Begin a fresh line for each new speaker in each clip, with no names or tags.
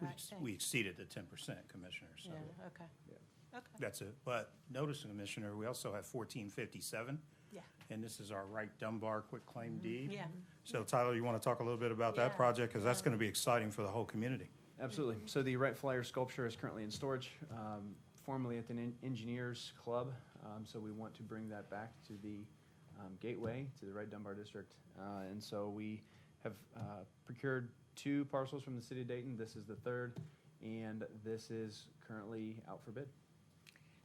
We
right
ex-
thing.
We exceeded the ten percent, Commissioner, so
Yeah, okay. Okay,
that's it. But notice, Commissioner, we also have fourteen fifty-seven,
yeah,
and this is our Wright Dunbar quick claim deed.
yeah.
So Tyler, you want to talk a little bit about that
Yeah, Um,
project? Because that's
yeah.
going to be exciting for the whole community.
Absolutely. So the Wright Flyer sculpture is currently in storage, um, formerly at the Nin- Engineers Club. Um, so we want to bring that back to the um, gateway to the Wright Dunbar District. Uh, and so we have uh, procured two parcels from the city of Dayton. This is the third, and this is currently out for bid.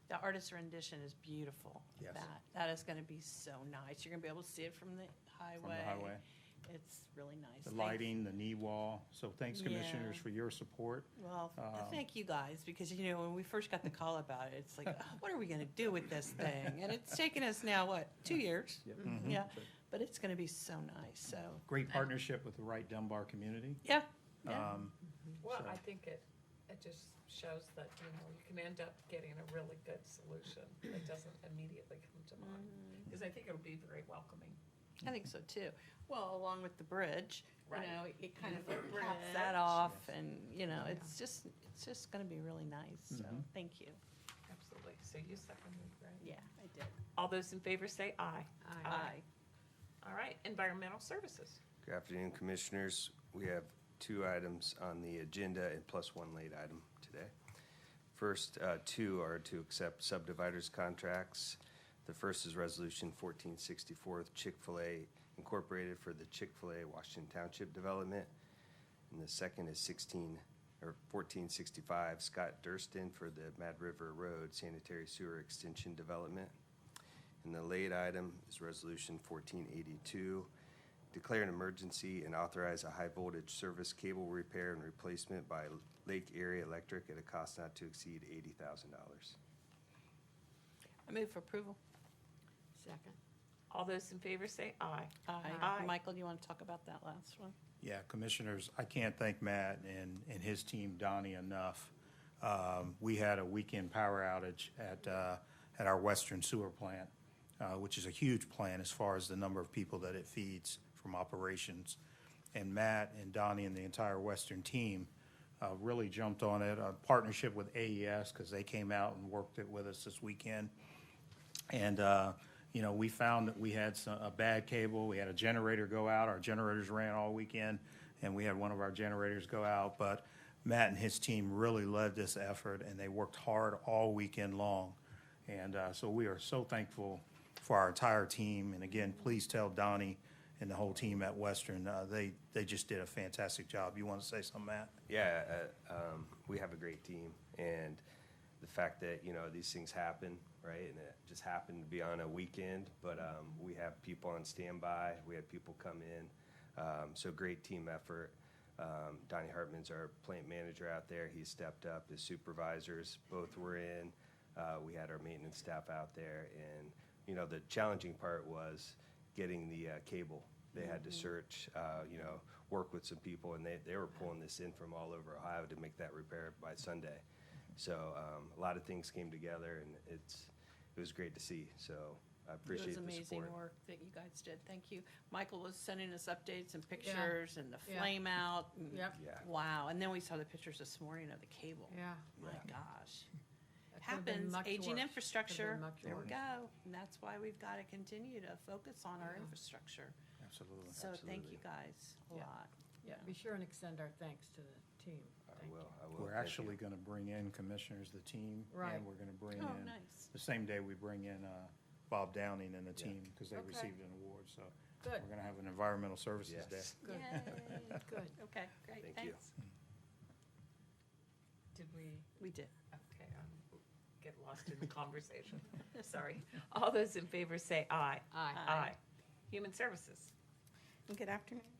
The artist rendition is beautiful.
Yes.
That, that is gonna be so nice. You're gonna be able to see it from the highway.
From the highway,
It's really nice.
the
Thank-
lighting, the knee wall. So thanks, Commissioners,
Yeah.
for your support.
Well, th-
Um,
thank you guys, because, you know, when we first got the call about it, it's like, "Oh, what are we gonna do with this thing? And it's taken us now, what, two years?
Yep.
Mhm.
Mm-hmm. Yeah, but it's gonna be so nice, so,
Great partnership with the Wright Dunbar community.
yeah, yeah,
Um,
Well,
So-
I think it, it just shows that, you know, you can end up getting a really good solution that doesn't immediately come to mind.
Mm-hmm.
Because I think it'll be very welcoming.
I think so too. Well, along with the bridge, you
Right.
know, it kind of
Bridge.
caps that off, and, you know, it's just, it's just gonna be really nice, so,
Mhm.
thank you.
Absolutely. So you seconded, right?
Yeah, I did.
All those in favor say aye. Aye.
Aye.
All right, environmental services.
Good afternoon, Commissioners. We have two items on the agenda and plus one late item today. First, uh, two are to accept subdividers contracts. The first is Resolution 1464 Chick-fil-A Incorporated for the Chick-fil-A Washington Township Development. And the second is 16, or 1465 Scott Durston for the Mad River Road Sanitary Sewer Extension Development. And the late item is Resolution 1482, declare an emergency and authorize a high-voltage service cable repair and replacement by Lake Area Electric at a cost not to exceed $80,000.
I move for approval.
Second.
All those in favor say aye.
Aye.
Aye.
Michael, do you want to talk about that last one?
Yeah, Commissioners, I can't thank Matt and, and his team, Donnie, enough. Um, We had a weekend power outage at, uh, at our Western Sewer Plant, uh, which is a huge plant as far as the number of people that it feeds from operations. And Matt and Donnie and the entire Western team uh, really jumped on it, a partnership with AES, because they came out and worked it with us this weekend. And, uh, you know, we found that we had some, a bad cable, we had a generator go out, our generators ran all weekend, and we had one of our generators go out, but Matt and his team really led this effort, and they worked hard all weekend long. And, uh, so we are so thankful for our entire team, and again, please tell Donnie and the whole team at Western, uh, they, they just did a fantastic job. You wanna say something, Matt?
Yeah, uh, um, we have a great team, and the fact that, you know, these things happen, right? And it just happened to be on a weekend, but um, we have people on standby, we had people come in. um, So great team effort. Um, Donnie Hartman's our plant manager out there. He stepped up. His supervisors both were in. Uh, we had our maintenance staff out there, and you know the challenging part was getting the uh, cable. They had
Mm-hmm.
to search, uh, you know, work with some people, and they, they were pulling this in from all over Ohio to make that repair by Sunday. So um, a lot of things came together, and it's it was great to see. So I
It
appreciate
was
the
amazing
support.
work that you guys did, thank you. Michael was sending us updates and pictures and the
Yeah.
flame out. and-
Yep.
Yeah.
Wow, and then we saw the pictures this morning of the cable.
Yeah.
My
Yeah.
gosh.
That could've been
Happens,
much
aging
worse.
infrastructure,
much
there we
worse.
go. And that's why we've got to continue to focus on our infrastructure.
Absolutely.
So thank you
Absolutely.
guys a
Yeah.
lot.
Yeah, be sure and extend our thanks to the team.
I
Thank you.
will. I will.
We're
Thank
actually
you.
gonna bring in Commissioners, the team,
Right.
and we're gonna bring in.
Oh, nice.
the same day we bring in uh, Bob Downing and the
Yeah.
team, because they
Okay.
received an award, so
Good,
we're gonna have an environmental services day.
Yes.
good,
Yay.
good.
Okay, great,
Thank you.
thanks.
Did we,
We did.
okay, I get lost in the conversation. Sorry. All those in favor say aye.
Aye.
Aye.
Human services.
Good afternoon,
oh